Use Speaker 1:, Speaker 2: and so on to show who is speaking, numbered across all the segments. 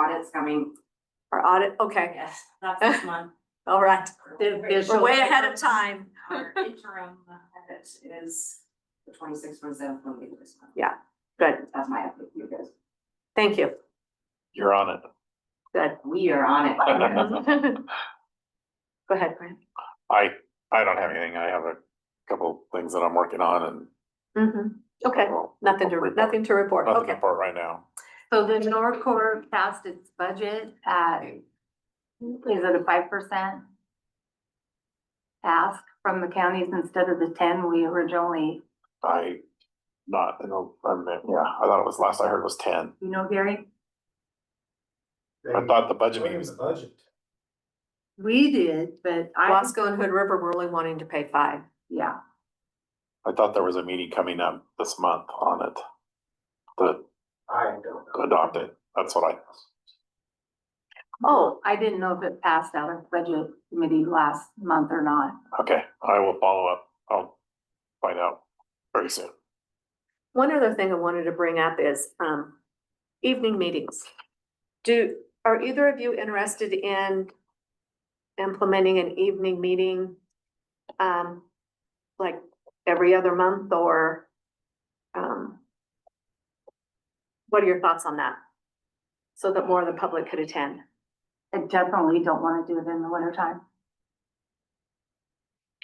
Speaker 1: audit is coming.
Speaker 2: Our audit, okay,
Speaker 1: Yes, that's this month.
Speaker 2: all right.
Speaker 1: We're-
Speaker 2: We're way ahead of time.
Speaker 1: Our interim uh, audit is the twenty-sixth, one seventh, one week this month.
Speaker 2: Yeah, good.
Speaker 1: That's my update, you guys.
Speaker 2: Thank you.
Speaker 3: You're on it.
Speaker 2: Good.
Speaker 1: We are on it.
Speaker 2: Go ahead, Brian.
Speaker 3: I, I don't have anything. I have a couple things that I'm working on and.
Speaker 2: Mhm. Okay,
Speaker 3: well,
Speaker 2: nothing to,
Speaker 3: report.
Speaker 2: nothing to report.
Speaker 3: Nothing to
Speaker 2: Okay,
Speaker 3: report right now.
Speaker 4: So the Norcore passed its budget at, is it a five percent? Ask from the counties instead of the ten we originally,
Speaker 3: I, not, I know, I mean, yeah, I thought it was, last I heard was ten.
Speaker 4: you know, Gary?
Speaker 3: I thought the budget meeting
Speaker 5: Williams
Speaker 3: was,
Speaker 5: the budget.
Speaker 4: We did, but I,
Speaker 2: Wasco and Hood River were only wanting to pay five.
Speaker 4: yeah,
Speaker 3: I thought there was a meeting coming up this month on it.
Speaker 5: I don't know.
Speaker 3: To adopt it. That's what I,
Speaker 2: Oh,
Speaker 4: I didn't know if it passed out of budget committee last month or not.
Speaker 3: okay, I will follow up. I'll find out very soon.
Speaker 2: one other thing I wanted to bring up is um evening meetings. Do, are either of you interested in implementing an evening meeting? Um, like every other month or um. What are your thoughts on that? So that more of the public could attend.
Speaker 4: I definitely don't wanna do it in the winter time.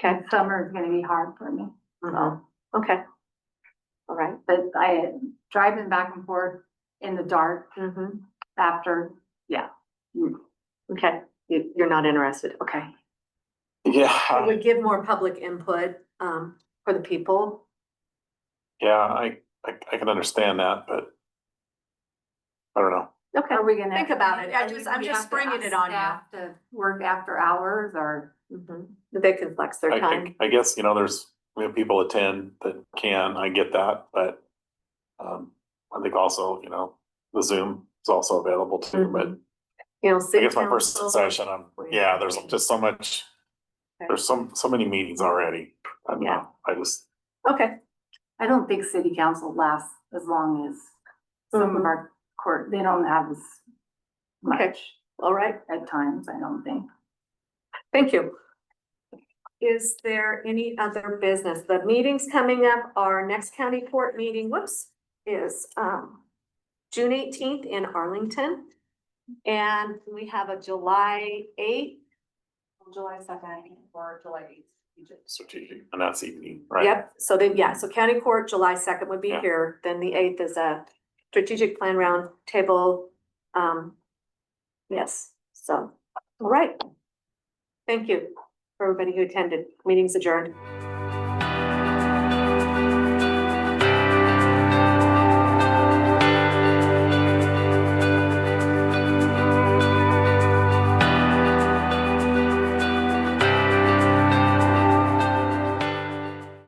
Speaker 2: Okay.
Speaker 4: Summer is gonna be hard for me.
Speaker 2: Mhm. Okay. All right.
Speaker 4: But I, driving back and forth in the dark
Speaker 2: Mhm.
Speaker 4: after,
Speaker 2: Okay, you, you're not interested, okay. It
Speaker 3: Yeah,
Speaker 2: would give more public input, um, for the people.
Speaker 3: yeah, I, I, I can understand that, but. I don't know.
Speaker 2: Okay.
Speaker 4: Are we gonna?
Speaker 2: Think about it. I just-
Speaker 4: think
Speaker 2: I'm
Speaker 4: we
Speaker 2: just
Speaker 4: have to
Speaker 2: springing
Speaker 4: ask
Speaker 2: it on you.
Speaker 4: staff To work after hours or,
Speaker 2: Mhm. They can flex their
Speaker 3: I-
Speaker 2: time.
Speaker 3: I, I guess, you know, there's, we have people attend that can, I get that, but. Um, I think also, you know, the Zoom is also available too, but
Speaker 2: Mhm. You know,
Speaker 3: I
Speaker 2: city
Speaker 3: guess my first
Speaker 2: council-
Speaker 3: session, I'm, yeah, there's just so much.
Speaker 2: Okay.
Speaker 3: There's so, so many meetings already. I don't know, I just,
Speaker 2: Okay,
Speaker 4: I don't think city council lasts as long as some of
Speaker 2: Mhm.
Speaker 4: our court, they don't have as
Speaker 2: Okay.
Speaker 4: much
Speaker 2: all right,
Speaker 4: at times, I don't think.
Speaker 2: thank you. Is there any other business? The meetings coming up, our next county court meeting, whoops, is, um, June eighteenth in Arlington. And we have a July eighth. July second.
Speaker 1: Or July eighth.
Speaker 3: strategic, and that's evening, right?
Speaker 2: Yep, so then, yeah, so county court, July second would be
Speaker 3: Yeah.
Speaker 2: here, then the eighth is a strategic plan roundtable. Um, yes, so, all right. Thank you, for everybody who attended, meeting's adjourned.